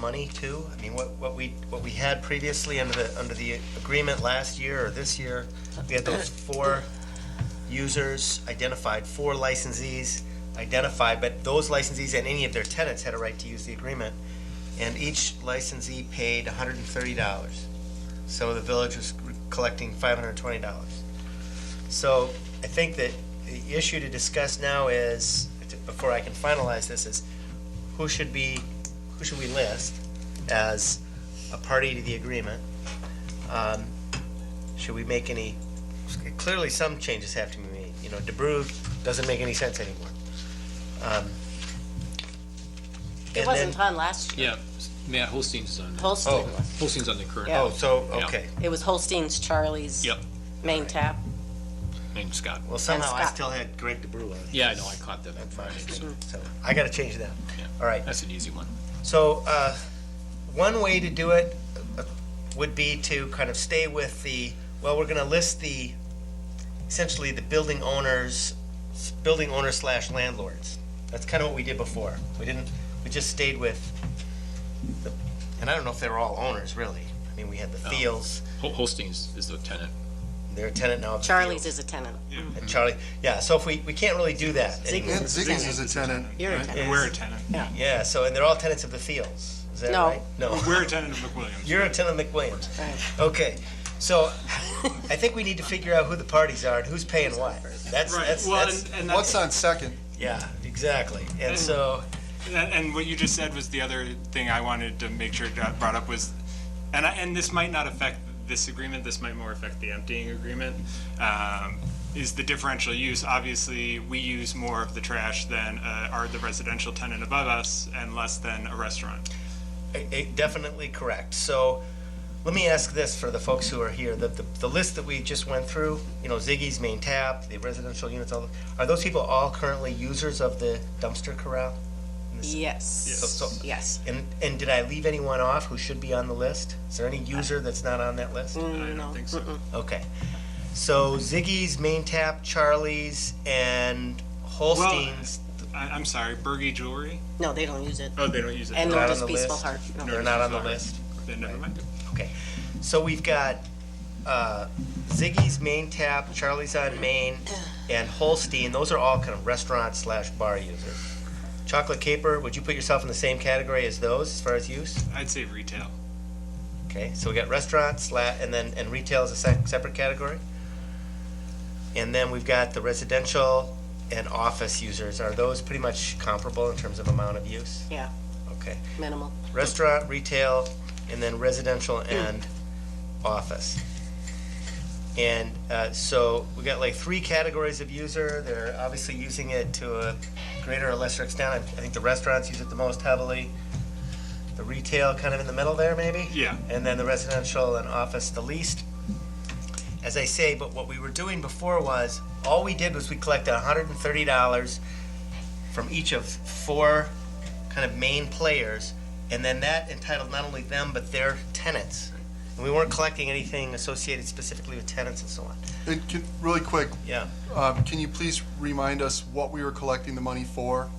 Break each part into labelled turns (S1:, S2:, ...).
S1: money too? I mean, what, what we, what we had previously under the, under the agreement last year or this year, we had those four users identified, four licensees identified, but those licensees and any of their tenants had a right to use the agreement. And each licensee paid hundred and thirty dollars. So the village was collecting five hundred and twenty dollars. So I think that the issue to discuss now is, before I can finalize this, is who should be, who should we list as a party to the agreement? Um, Should we make any, clearly some changes have to be made, you know, DeBru doesn't make any sense anymore. Um,
S2: It
S1: and
S2: wasn't
S1: then-
S2: on last year.
S3: Yeah, Matt Holstein's on, the-
S2: Holstein
S1: Oh.
S2: was.
S3: Holstein's on the current,
S2: Yeah.
S1: Oh, so,
S3: Yeah.
S1: okay,
S2: It was Holstein's, Charlie's.
S3: Yep.
S2: Main tap.
S3: and Scott.
S1: well, somehow I
S2: Scott.
S1: still had Greg DeBru on.
S3: Yeah, I know, I caught that on
S1: That's fine.
S3: Friday.
S1: So I gotta change that.
S3: Yeah.
S1: All right,
S3: That's an easy one.
S1: So, uh, one way to do it uh, would be to kind of stay with the, well, we're gonna list the, essentially the building owners, building owner slash landlords. That's kind of what we did before. We didn't, we just stayed with, the- and I don't know if they were all owners, really. I mean, we had the
S3: No.
S1: Thiels,
S3: Hol- Holstein's is the tenant.
S1: they're a tenant now of the
S2: Charlie's
S1: Thiels.
S2: is a tenant.
S1: And Charlie, yeah, so if we, we can't really do that anymore.
S2: Ziggy's
S4: And
S2: is a
S4: Ziggy's
S2: tenant.
S4: is a tenant.
S2: You're a
S4: right?
S2: tenant.
S5: We're a tenant.
S1: Yeah, so, and they're all tenants of the Thiels, is that
S2: No.
S1: right? No.
S5: We're a tenant of McWilliams.
S1: You're a tenant of McWilliams.
S2: Right.
S1: Okay, so I think we need to figure out who the parties are and who's paying what. That's, that's,
S5: Well,
S1: that's,
S5: and, and
S4: What's
S5: that's,
S4: on second?
S1: yeah, exactly. And so,
S5: and and what you just said was the other thing I wanted to make sure got brought up was, and I, and this might not affect this agreement. This might more affect the emptying agreement. Um, is the differential use? Obviously, we use more of the trash than uh, are the residential tenant above us, and less than a restaurant.
S1: eh, eh, definitely correct. So let me ask this for the folks who are here, the, the, the list that we just went through, you know, Ziggy's, Main Tap, the residential units, all, are those people all currently users of the dumpster corral? So-
S2: Yes.
S1: so-
S2: Yes.
S1: And, and did I leave anyone off who should be on the list? Is there any user that's not on that list?
S5: I don't
S2: No.
S5: think so.
S1: Okay. So Ziggy's, Main Tap, Charlie's, and Holstein's,
S5: I, I'm sorry, Bergie Jewelry.
S2: No, they don't use it.
S5: Oh, they don't use it.
S2: And nor
S1: Not on
S2: does
S1: the
S2: Peaceful
S1: list.
S2: Heart. No.
S1: they're not on the list.
S5: Then never mind.
S1: Okay, so we've got uh, Ziggy's Main Tap, Charlie's on Main, and Holstein. Those are all kind of restaurant slash bar users. Chocolate Caper, would you put yourself in the same category as those as far as use?
S5: I'd say retail.
S1: Okay, so we got restaurants, sla- and then and retail is a se- separate category. And then we've got the residential and office users. Are those pretty much comparable in terms of amount of use?
S2: Yeah,
S1: Okay,
S2: minimal.
S1: restaurant, retail, and then residential and office. And uh, so we got like three categories of user. They're obviously using it to a greater or lesser extent. I I think the restaurants use it the most heavily. The retail kind of in the middle there, maybe?
S5: Yeah.
S1: And then the residential and office the least. As I say, but what we were doing before was, all we did was we collected hundred and thirty dollars from each of four kind of main players, and then that entitled not only them but their tenants. And we weren't collecting anything associated specifically with tenants and so on.
S4: And Uh, can, really quick,
S1: Yeah.
S4: um, can you please remind us what we were collecting the money for?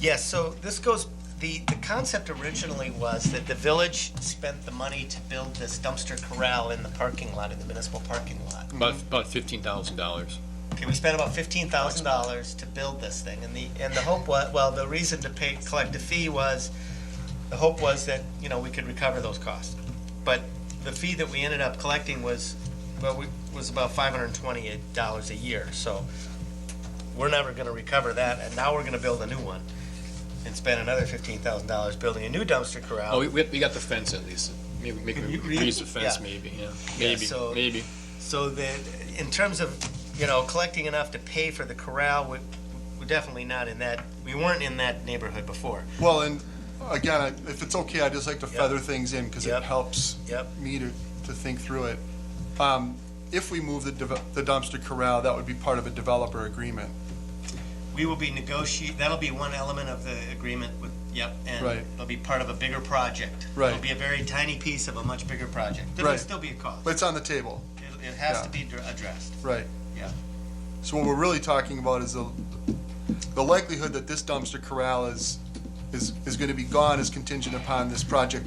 S1: Yes, so this goes, the, the concept originally was that the village spent the money to build this dumpster corral in the parking lot, in the municipal parking lot.
S3: About, about fifteen thousand dollars.
S1: Okay, we spent about fifteen thousand dollars to build this thing, and the, and the hope was, well, the reason to pay, collect a fee was, the hope was that, you know, we could recover those costs. But the fee that we ended up collecting was, well, we, was about five hundred and twenty dollars a year, so we're never gonna recover that, and now we're gonna build a new one and spend another fifteen thousand dollars building a new dumpster corral.
S3: Oh, we, we we got the fence at least. Maybe, maybe
S1: Can you
S3: we
S1: read?
S3: use the fence,
S1: Yeah.
S3: maybe, yeah. Maybe,
S1: so-
S3: maybe.
S1: So that, in terms of, you know, collecting enough to pay for the corral, we, we're definitely not in that, we weren't in that neighborhood before.
S4: Well, and again, I- if it's okay, I'd just like to feather things in because
S1: Yep.
S4: it helps
S1: Yep.
S4: me to, to think through it. Um, If we move the deve- the dumpster corral, that would be part of a developer agreement.
S1: We will be negotiate, that'll be one element of the agreement with, yep, and
S4: Right.
S1: it'll be part of a bigger project.
S4: Right.
S1: It'll be a very tiny piece of a much bigger project. There will
S4: Right.
S1: still be a cost.
S4: But it's on the table,
S1: It, it has
S4: Yeah.
S1: to be dr- addressed,
S4: right?
S1: yeah.
S4: So what we're really talking about is the, the likelihood that this dumpster corral is, is, is going to be gone is contingent upon this project